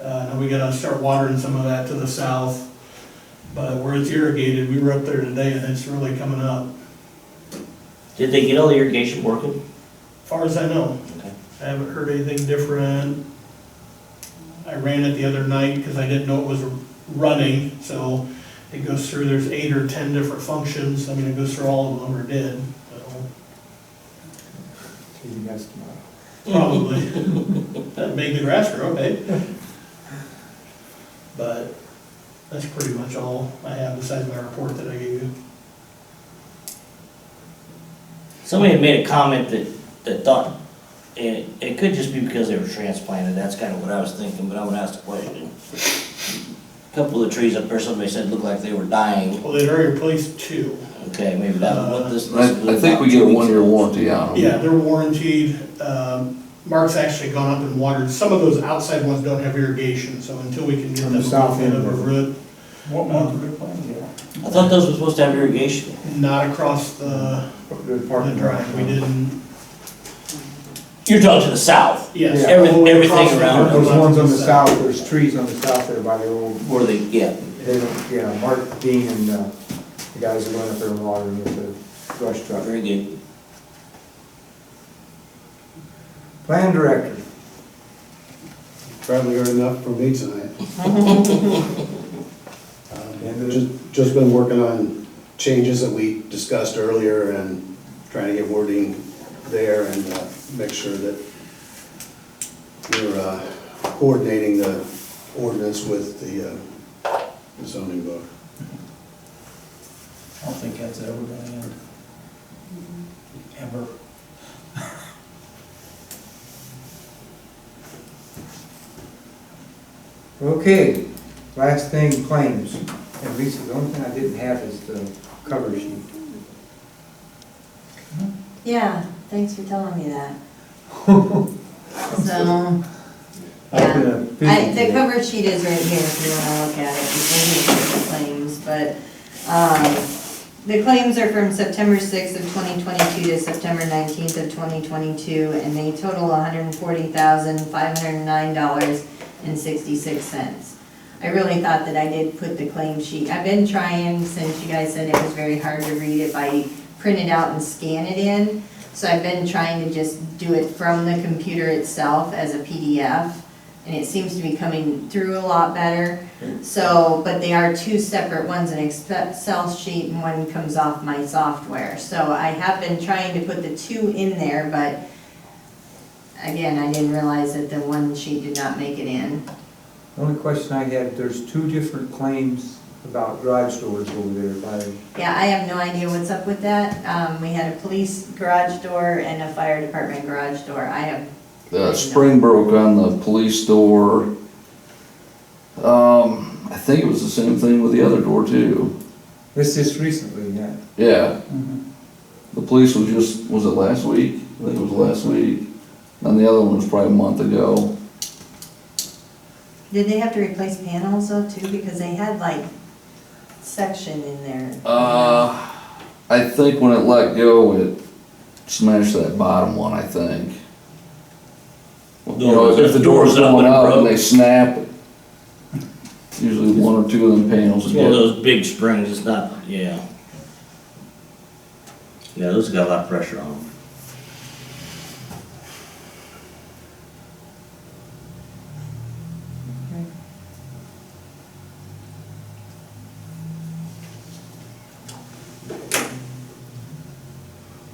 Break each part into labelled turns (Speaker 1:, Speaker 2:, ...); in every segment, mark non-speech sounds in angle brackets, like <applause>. Speaker 1: Uh, and we gotta start watering some of that to the south. But where it's irrigated, we were up there today and it's really coming up,
Speaker 2: Did they get all the irrigation working?
Speaker 1: far as I know.
Speaker 2: Okay.
Speaker 1: I haven't heard anything different. I ran it the other night because I didn't know it was running, so it goes through, there's eight or ten different functions, I mean, it goes through all of them, or did, so,
Speaker 3: See you guys tomorrow.
Speaker 1: probably. That made the grass grow, eh? But that's pretty much all I have besides my report that I gave you.
Speaker 2: Somebody had made a comment that, that thought, it, it could just be because they were transplanted, that's kind of what I was thinking, but I would ask the question. A Couple of the trees up there, somebody said looked like they were dying,
Speaker 1: Well, they've already replaced two.
Speaker 2: okay, maybe that was what this. this was
Speaker 4: Uh, I, I think
Speaker 2: about
Speaker 4: we get a
Speaker 2: two weeks
Speaker 4: one-year
Speaker 2: ago.
Speaker 4: warranty on them.
Speaker 1: Yeah, they're warranted. Um, Mark's actually gone up and watered. Some of those outside ones don't have irrigation, so until we can get
Speaker 3: On
Speaker 1: them
Speaker 3: the
Speaker 1: a
Speaker 3: south
Speaker 1: little bit
Speaker 3: end.
Speaker 1: of a root,
Speaker 3: What month did we plan,
Speaker 2: I
Speaker 3: yeah?
Speaker 2: thought those were supposed to have irrigation.
Speaker 1: not across the,
Speaker 3: Good
Speaker 1: the
Speaker 3: parking lot.
Speaker 1: drive. We didn't,
Speaker 2: You're talking to the south,
Speaker 1: yes.
Speaker 3: Yeah.
Speaker 2: Every-
Speaker 1: all the way
Speaker 2: everything
Speaker 1: across the-
Speaker 2: around
Speaker 3: Those ones on the south, there's trees on the south there by the old,
Speaker 2: where they, yeah,
Speaker 3: they don't, yeah, Mark Dean and, uh, the guys who went up there and watering with the brush truck.
Speaker 2: very good.
Speaker 3: Plan director,
Speaker 5: Probably heard enough from me tonight. Um, Just just been working on changes that we discussed earlier and trying to get wording there and uh, make sure that we're uh, coordinating the ordinance with the uh, zoning book.
Speaker 6: I don't think that's ever gonna end. Ever.
Speaker 3: okay, last thing, claims. And Lisa, the only thing I didn't have is the cover sheet. <laughs>
Speaker 7: Yeah, thanks for telling me that. So,
Speaker 3: I've
Speaker 7: yeah,
Speaker 3: been <laughs> a busy
Speaker 7: I, the
Speaker 3: day.
Speaker 7: cover sheet is right here if you wanna look at it, it's only the claims, but, um, the claims are from September sixth of twenty twenty-two to September nineteenth of twenty twenty-two, and they total hundred and forty thousand, five hundred and nine dollars and sixty-six cents. I really thought that I did put the claim sheet, I've been trying since you guys said it was very hard to read if I print it out and scan it in. So I've been trying to just do it from the computer itself as a PDF, and it seems to be coming through a lot better. So, but they are two separate ones, an Excel sheet and one comes off my software. So I have been trying to put the two in there, but again, I didn't realize that the one sheet did not make it in.
Speaker 3: The only question I had, there's two different claims about garage doors over there by
Speaker 7: Yeah, I have no idea what's up with that. Um, we had a police garage door and a fire department garage door. I have,
Speaker 4: Uh, spring broke on the police door. Um, I think it was the same thing with the other door too.
Speaker 3: This is recently, yeah.
Speaker 4: Yeah, the police was just, was it last week? I think it was last week. And the other one was probably a month ago.
Speaker 7: did they have to replace panels though too? Because they had like section in there.
Speaker 4: Uh, I think when it let go, it smashed that bottom one, I think. You know, if the door's
Speaker 2: Door's up
Speaker 4: going
Speaker 2: and
Speaker 4: up and
Speaker 2: broke.
Speaker 4: they snap, usually one or two of them panels
Speaker 2: It's
Speaker 4: would
Speaker 2: one of
Speaker 4: get
Speaker 2: those big springs, it's not, yeah. Yeah, those got a lot of pressure on them.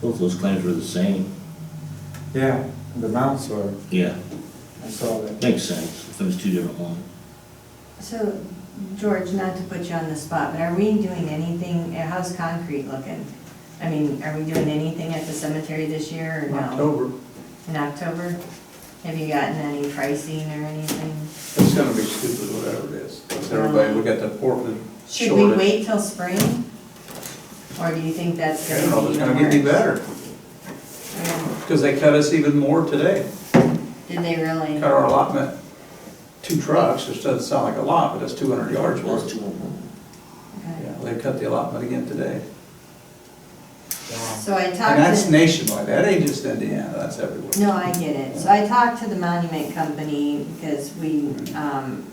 Speaker 2: Both those claims were the same,
Speaker 3: Yeah, the mounts are,
Speaker 2: yeah,
Speaker 3: I saw that.
Speaker 2: makes sense, if it was two different ones.
Speaker 7: So, George, not to put you on the spot, but are we doing anything, uh, how's concrete looking? I mean, are we doing anything at the cemetery this year or no?
Speaker 3: October.
Speaker 7: In October? Have you gotten any pricing or anything? Um,
Speaker 8: It's gonna be stupid, whatever it is, because everybody, we got the Portland
Speaker 7: Should we
Speaker 8: shortage.
Speaker 7: wait till spring? Or do you think that's
Speaker 8: I don't
Speaker 7: gonna
Speaker 8: know,
Speaker 7: be
Speaker 8: it's
Speaker 7: even
Speaker 8: gonna be
Speaker 7: worse?
Speaker 8: better,
Speaker 7: Yeah.
Speaker 8: because they cut us even more today.
Speaker 7: Did they really?
Speaker 8: Cut our allotment, two trucks, which doesn't sound like a lot, but that's two hundred yards
Speaker 2: Those
Speaker 8: worth.
Speaker 2: two of them.
Speaker 7: Okay.
Speaker 8: Yeah, They cut the allotment again today.
Speaker 7: So I talked to.
Speaker 8: And that's nationwide, that ain't just Indiana, that's everywhere.
Speaker 7: No, I get it. So I talked to the monument company because we, um,